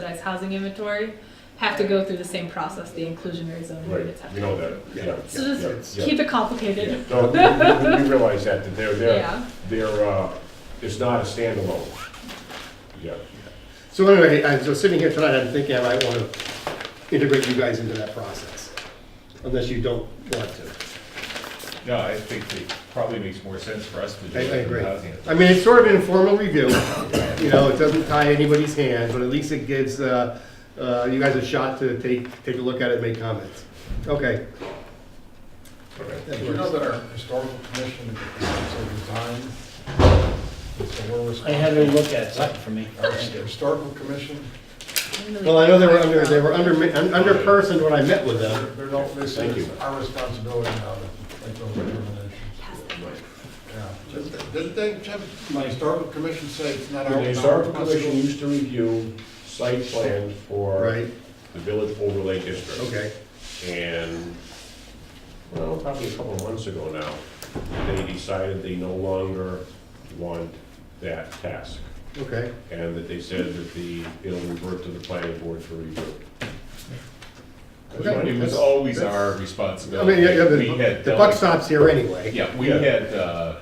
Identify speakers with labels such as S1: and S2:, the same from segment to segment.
S1: subsidized housing inventory have to go through the same process the inclusionary zoning
S2: Right,
S1: units have
S2: we
S1: to.
S2: know
S1: go
S2: that,
S1: through.
S2: yeah.
S1: So
S2: yeah,
S1: just
S2: yeah,
S1: keep it
S2: yeah.
S1: complicated.
S2: No, we- we- we realize that, that they're, they're,
S1: Yeah,
S2: they're, uh, it's not a standalone. Yeah,
S3: So anyway, I- so sitting here tonight, I'm thinking I might want to integrate you guys into that process, unless you don't want to.
S4: No, I think it probably makes more sense for us to do
S3: I, I
S4: it. than
S3: agree.
S4: housing.
S3: I mean, it's sort of an informal review, you know, it doesn't tie anybody's hands, but at least it gives, uh, uh, you guys a shot to take, take a look at it and make comments. Okay,
S2: okay.
S3: that
S5: Did you know
S3: works.
S5: that our historical commission is resigned? So we're
S6: I
S5: responsible.
S6: had her look at something for me.
S5: Our historical commission,
S3: Well, I know they were under, they were under, under person when I met with them.
S5: they're not, they say
S2: Thank you.
S5: it's our responsibility now to make those determinations. Yeah. Didn't- Didn't they, Jim, my historical commission say it's not our
S2: The
S5: our
S2: historical commission
S5: responsibility?
S2: used to review site plans for
S3: Right,
S2: the village overlay district.
S3: okay,
S2: And, well, probably a couple of months ago now, they decided they no longer want that task.
S3: okay.
S2: And that they said that the, it'll revert to the planning board for review.
S3: Okay.
S4: It was always our
S3: I mean,
S4: responsibility.
S3: yeah, yeah,
S4: We
S3: the
S4: had
S3: the buck
S4: delegated-
S3: stops here anyway.
S4: Yeah, we
S2: Yeah.
S4: had, uh,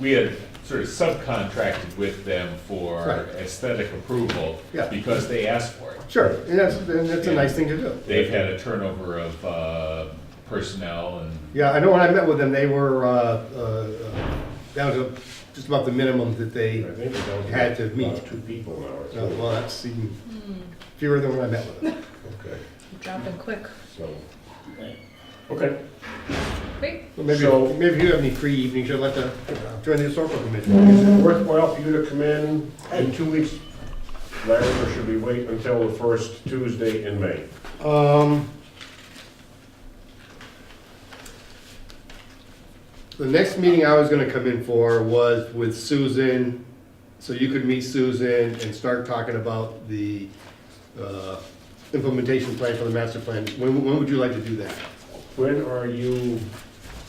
S4: we had sort of subcontracted with them for
S3: Right.
S4: aesthetic approval
S3: Yeah.
S4: because they asked for it.
S3: Sure, and that's, and that's a nice thing to do.
S4: They've had a turnover of uh, personnel and
S3: Yeah, I know when I met with them, they were, uh, uh, that was a- just about the minimum
S2: I
S3: that they,
S2: think it was
S3: Had to meet.
S2: about Two people now, or
S3: uh, well,
S2: something.
S3: that's even fewer than when I met with them.
S2: Okay,
S1: Dropping quick.
S2: so, okay.
S1: Great.
S3: Well, Maybe,
S2: So-
S3: maybe if you have any free evenings, you'll let the, uh, join the historical committee.
S2: Is it worthwhile for you to come in in two weeks, Larry, or should we wait until the first Tuesday in May?
S3: Um, The next meeting I was gonna come in for was with Susan, so you could meet Susan and start talking about the uh, implementation plan for the master plan. When, when would you like to do that?
S2: When are you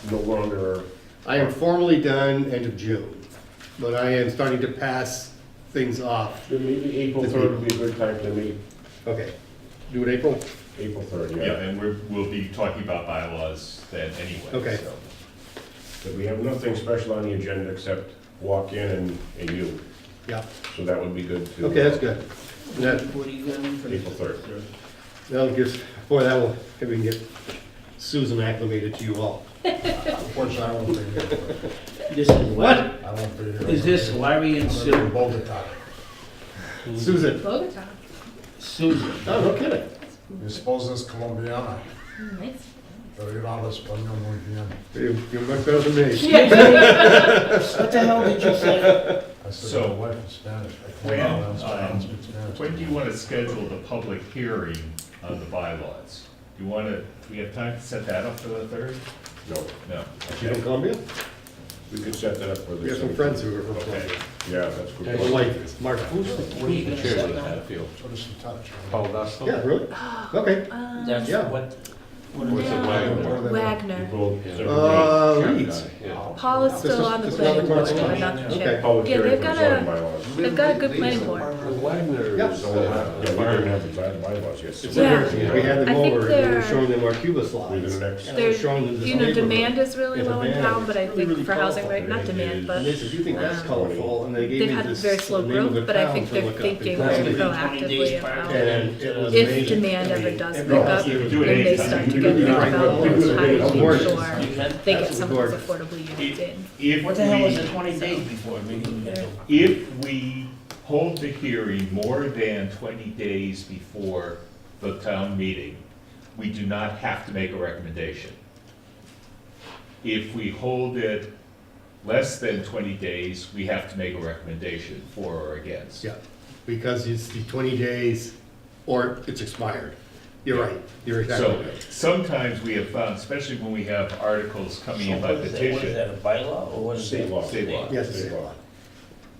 S2: no longer,
S3: I am formally done end of June, but I am starting to pass things off.
S2: maybe April
S3: It's
S2: third would be a good time to meet,
S3: Okay, do it April?
S2: April third,
S4: yeah,
S2: yeah.
S4: and we're, we'll be talking about bylaws then
S3: Okay.
S4: anyway, so.
S2: But we have nothing special on the agenda except walk in and, and you,
S3: Yeah,
S2: so that would be good to.
S3: okay, that's good. That,
S6: What are you going for?
S2: April third.
S3: That'll give, boy, that will, if we can get Susan acclimated to you all.
S5: Unfortunately, I won't be here.
S6: This is what?
S5: I won't be here.
S6: Is this Larry and
S5: I'm gonna be in
S6: Sue?
S5: Bogota.
S3: Susan,
S1: Bogota.
S6: Susan.
S3: oh, no kidding.
S5: You suppose this Colombiana,
S1: Mm, Nice.
S5: pero yo no hablo español muy bien.
S3: You- You're much better than me.
S6: What the hell did you say?
S5: I said,
S4: So-
S5: my wife is Spanish. I
S4: When,
S5: can't pronounce- pronounce
S4: um,
S5: Spanish.
S4: When do you want to schedule the public hearing on the bylaws? Do you want to, do we have time to set that up for the third?
S2: uh, No,
S4: No.
S3: She's from Columbia?
S2: we could set that up for the.
S3: We have some friends who are from
S4: Okay.
S3: Columbia.
S2: Yeah, that's good.
S3: Well, Like, Mark,
S6: What are you gonna set down?
S5: Put us in touch.
S3: yeah, really? Okay.
S6: That's
S3: Yeah.
S6: what? what
S1: What's
S6: are
S1: it,
S6: they-
S1: Wagner.
S2: April 3rd.
S3: Uh, Reeds.
S1: Paul is still on the
S3: This is- this
S1: planning
S3: is
S1: board,
S3: not the
S1: but not the
S6: question.
S1: chair.
S2: Public
S1: Yeah,
S2: hearing
S1: they've
S2: for
S1: got
S2: zoning
S1: a,
S2: bylaws.
S1: they've got a good planning board.
S3: Yeah.
S2: So, uh, Yeah, we didn't have the by- bylaws yet. so-
S3: It's like
S1: Yeah.
S3: We had them
S1: I think
S3: over and we were
S1: they're-
S3: showing them our Cuba slides.
S2: We're the next-
S3: And I was
S1: There's,
S3: showing them this
S1: you know,
S3: neighborhood.
S1: demand is really
S3: Yeah,
S1: low in
S3: demand
S1: town,
S3: is
S1: but I
S3: really,
S1: think
S3: really
S1: for housing,
S3: powerful.
S1: right, not
S2: It
S1: demand,
S3: And
S1: but
S3: they said, you think that's colorful, and they gave
S1: Um, they've
S3: me
S1: had
S3: this,
S1: very slow
S3: the name of
S1: growth,
S3: the
S1: but I
S3: town
S1: think
S3: to
S1: they're
S3: look up.
S1: thinking
S3: It's-
S1: very
S6: That's gonna be 20
S1: proactively
S6: days
S1: about
S6: prior.
S3: And it was
S1: if
S3: amazing.
S1: demand ever does pick
S3: Everyone
S1: up,
S3: else here-
S4: Do
S1: then
S4: it
S1: they
S4: anytime.
S1: start
S4: You
S1: to
S4: can
S1: get
S4: do it
S1: more
S3: right now.
S1: development,
S3: You can
S1: it's
S3: do it right
S1: time to
S3: now.
S6: You
S1: ensure
S6: can?
S1: they get
S3: That's
S1: some of those
S3: gorgeous.
S1: affordable units in.
S4: If
S6: What the hell is it
S4: we-
S6: twenty days before meeting?
S4: If we hold the hearing more than twenty days before the town meeting, we do not have to make a recommendation. If we hold it less than twenty days, we have to make a recommendation for or against.
S3: Yeah, because it's the twenty days or it's expired. You're right, you're
S4: So
S3: exactly right.
S4: sometimes we have found, especially when we have articles coming in by
S6: What is that- What is
S4: petition,
S6: that, a bylaw or what is that?
S2: State law.
S4: State law.
S3: Yes, it's a lot.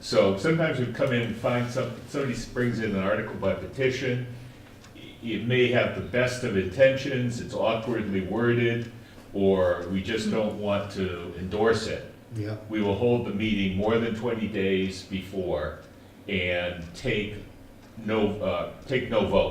S4: So sometimes we come in and find some, somebody brings in an article by petition. It may have the best of intentions, it's awkwardly worded, or we just don't want to endorse it.
S3: yeah.
S4: We will hold the meeting more than twenty days before and take no, uh, take no vote.